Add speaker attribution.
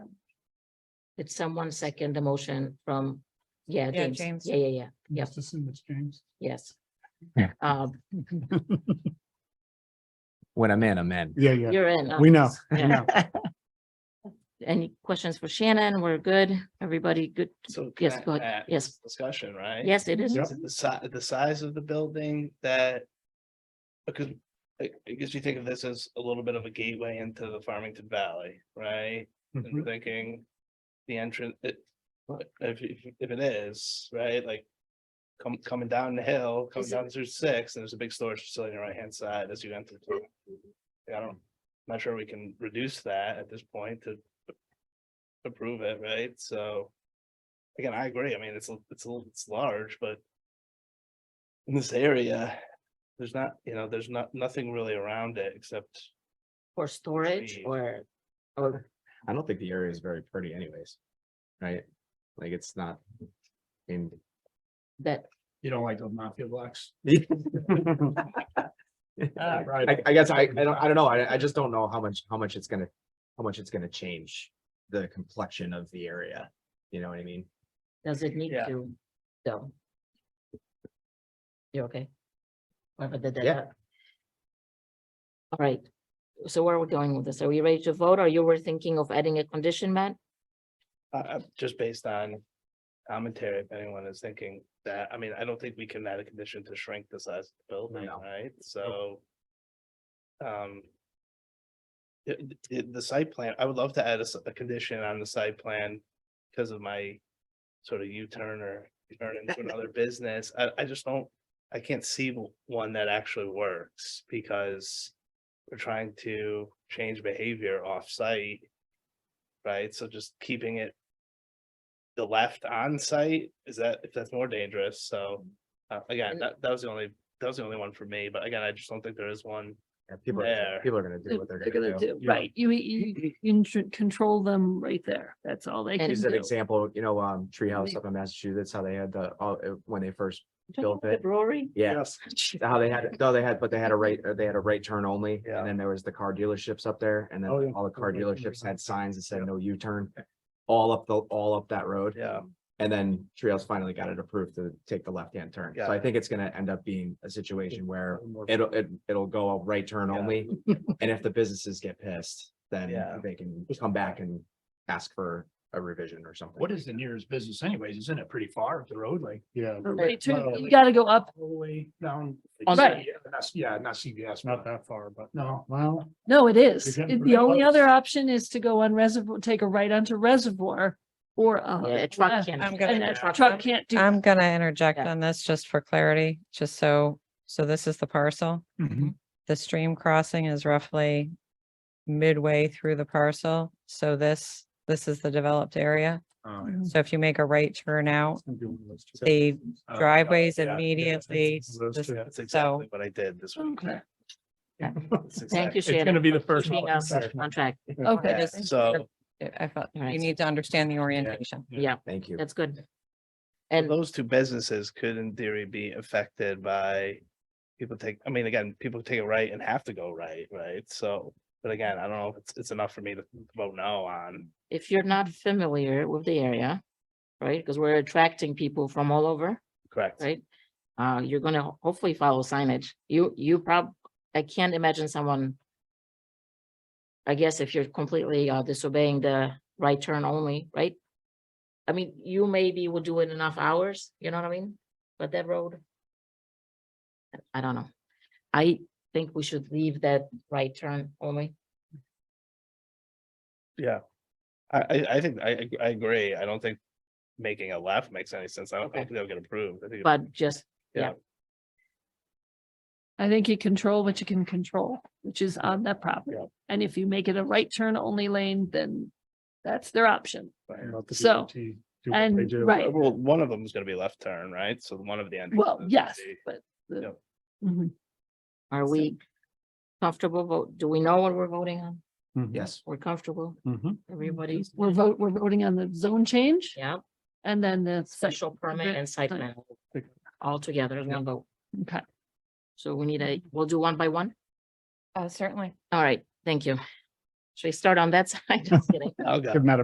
Speaker 1: Did someone second the motion from, yeah,
Speaker 2: Yeah,
Speaker 1: James,
Speaker 2: James.
Speaker 1: yeah, yeah, yeah, yep,
Speaker 3: Just assume it's James.
Speaker 1: yes.
Speaker 4: Yeah.
Speaker 1: Um,
Speaker 4: When I'm in, I'm in.
Speaker 3: Yeah, yeah,
Speaker 1: you're in.
Speaker 3: we
Speaker 1: um,
Speaker 3: know, we
Speaker 1: yeah.
Speaker 3: know.
Speaker 1: Any questions for Shannon? We're good. Everybody good?
Speaker 5: So.
Speaker 1: Yes,
Speaker 5: can I
Speaker 1: go ahead.
Speaker 5: add
Speaker 1: Yes.
Speaker 5: this Discussion, Uh, right?
Speaker 1: Yes, it is.
Speaker 3: Yep.
Speaker 5: Is it The si- the size of the building that. Because I I guess you think of this as a little bit of a gateway into the Farmington Valley, right? And
Speaker 1: Mm-hmm.
Speaker 5: we're
Speaker 3: Mhm.
Speaker 5: thinking the entrance, it, if, if- if it is, right, like. Come, coming down the hill, coming
Speaker 1: Is it-
Speaker 5: down through six, and there's a big storage facility on the right hand side as you enter. through. I don't, not sure we can reduce that at this point to. Approve it, right, so. Again, I agree, I mean, it's, a- it's, a- it's large, but. In this area, there's not, you know, there's not, nothing really around it except
Speaker 1: For storage
Speaker 5: Three.
Speaker 1: or, or,
Speaker 4: I don't think the area is very pretty anyways. Right? Like it's not. In,
Speaker 1: that,
Speaker 3: You don't like those mafia blocks.
Speaker 2: Uh,
Speaker 4: I,
Speaker 3: Right.
Speaker 4: I guess I, I don't, I don't know. I, I just don't know how much, how much it's gonna, how much it's gonna change the complexion of the area. You know what I mean?
Speaker 1: does it need
Speaker 5: Yeah.
Speaker 1: to, though? You're okay? Whatever the- the-
Speaker 4: Yeah.
Speaker 1: All right, so where are we going with this? Are we ready to vote? Or you were thinking of adding a condition, Matt?
Speaker 5: Uh, uh, just based on commentary, if anyone is thinking that, I mean, I don't think we can add a condition to shrink the size of the building,
Speaker 4: No.
Speaker 5: right? So. Um. It, it- the site plan, I would love to add a, s- a condition on the site plan because of my sort of U-turn or turn into another business. I, I just don't, I can't see w- one that actually works because we're trying to change behavior off-site. Right? So just keeping it the left on site is that, if that's more dangerous, so. Uh, again,
Speaker 1: Mm. And-
Speaker 5: that, that was the only, that was the only one for me, but again, I just don't think there is one.
Speaker 4: Yeah, People, are
Speaker 5: There.
Speaker 4: people are gonna do what they're gonna do.
Speaker 3: Yeah.
Speaker 6: Right, you, you, you can control them right there. That's all they
Speaker 1: And-
Speaker 6: can
Speaker 4: Use an
Speaker 6: do.
Speaker 4: example, you know, um, Treehouse up in Massachusetts, how they had the, all- uh, when they first
Speaker 1: Talking
Speaker 4: built
Speaker 1: about The
Speaker 4: it.
Speaker 1: brewery?
Speaker 4: Yeah, how they had, no, they had, but they had a right, uh, they had a right turn only,
Speaker 5: Yeah.
Speaker 4: and then there was the car dealerships up there, and
Speaker 3: Oh, yeah.
Speaker 4: then all the car
Speaker 3: Right, right,
Speaker 4: dealerships had signs that said
Speaker 3: Yeah.
Speaker 4: no U-turn. All up the, all up that road,
Speaker 5: Yeah,
Speaker 4: and then Trios finally got it approved to take the left-hand turn, so
Speaker 5: Got
Speaker 4: I
Speaker 5: it.
Speaker 4: think it's gonna end up being a situation where it'll, it, it'll go a right turn
Speaker 5: Yeah.
Speaker 4: only. And if the businesses get pissed, then
Speaker 5: Yeah.
Speaker 4: they can come back and ask for a revision or something.
Speaker 3: What is the nearest business anyways? Isn't it pretty far up the road, like? Yeah.
Speaker 6: But right to-
Speaker 3: Well,
Speaker 6: You gotta go up.
Speaker 3: All the way down.
Speaker 1: On the-
Speaker 3: Yeah, that's- Yeah, not CVS. Not that far, but. No, well.
Speaker 6: No, it is.
Speaker 3: You're getting
Speaker 6: It- The
Speaker 3: pretty
Speaker 6: only
Speaker 3: close.
Speaker 6: other option is to go on reservoir, take a right onto reservoir or. uh,
Speaker 1: Yeah, Oh, a truck
Speaker 6: left.
Speaker 1: can.
Speaker 2: I'm
Speaker 6: And
Speaker 2: gonna,
Speaker 6: a
Speaker 1: Yeah.
Speaker 6: truck can't do.
Speaker 2: I'm gonna interject
Speaker 1: Yeah.
Speaker 2: on this just for clarity, just so, so this is the parcel.
Speaker 3: Mm-hmm.
Speaker 2: The stream crossing is roughly midway through the parcel, so this, this is the developed area.
Speaker 3: Oh, yeah.
Speaker 6: Mhm.
Speaker 2: So if you make a right turn out,
Speaker 3: It's gonna be one of those two.
Speaker 2: the
Speaker 3: Uh, yeah,
Speaker 2: driveways
Speaker 3: yeah, yeah,
Speaker 2: immediately
Speaker 3: it's one of those
Speaker 2: just-
Speaker 3: two.
Speaker 5: that's exactly what I did this week.
Speaker 3: Okay.
Speaker 1: Thank you,
Speaker 3: It's gonna
Speaker 1: Shannon.
Speaker 3: be the first.
Speaker 1: Keeping
Speaker 3: one.
Speaker 1: us on track.
Speaker 6: Okay.
Speaker 5: Yeah, So
Speaker 2: I felt,
Speaker 1: Right.
Speaker 2: you need to understand the orientation.
Speaker 1: Yeah,
Speaker 4: Thank you.
Speaker 1: that's good.
Speaker 5: and
Speaker 1: And
Speaker 5: those two businesses could in theory be affected by. People take, I mean, again, people take it right and have to go right, right? So, but again, I don't know if it's, it's enough for me to vote no on.
Speaker 1: if you're not familiar with the area, right, because we're attracting people from all over,
Speaker 5: Correct.
Speaker 1: right? Uh, you're gonna ho- hopefully follow signage. You, you prob, I can't imagine someone. I guess if you're completely uh, disobeying the right turn only, right? I mean, you maybe will do it enough hours, you know what I mean? But that road. I- I don't know. I think we should leave that right turn only.
Speaker 5: Yeah. I, I, I think, I, I agree. I don't think making a left makes any sense. I don't I
Speaker 1: Okay.
Speaker 5: don't think they'll get approved. I think it-
Speaker 1: But just, yeah.
Speaker 5: Yeah.
Speaker 6: I think you control what you can control, which is on that property.
Speaker 5: Yeah.
Speaker 6: And if you make it a right turn only lane, then that's their option.
Speaker 3: Let the
Speaker 6: So,
Speaker 3: DOT do what they
Speaker 6: And,
Speaker 3: do.
Speaker 6: right,
Speaker 5: uh, Well, one of them is gonna be left turn, right? So one of the endings. is
Speaker 6: well,
Speaker 5: gonna
Speaker 6: yes,
Speaker 5: be-
Speaker 6: but. the-
Speaker 5: Yep.
Speaker 6: Mhm.
Speaker 1: Are
Speaker 6: So-
Speaker 1: we comfortable vote? Do we know what we're voting on?
Speaker 3: Mhm.
Speaker 4: Yes,
Speaker 1: We're comfortable,
Speaker 3: Mhm.
Speaker 1: everybody's,
Speaker 6: We're vote, we're voting on the zone change
Speaker 1: yeah,
Speaker 6: and then the.
Speaker 1: special permit
Speaker 6: Right.
Speaker 1: and site plan. All together, as one vote.
Speaker 6: Okay.
Speaker 1: So we need a, we'll do one by one.
Speaker 2: Uh, certainly.
Speaker 1: All right, thank you. Should we start on that side? Just kidding.
Speaker 5: I'll go.
Speaker 3: Give them out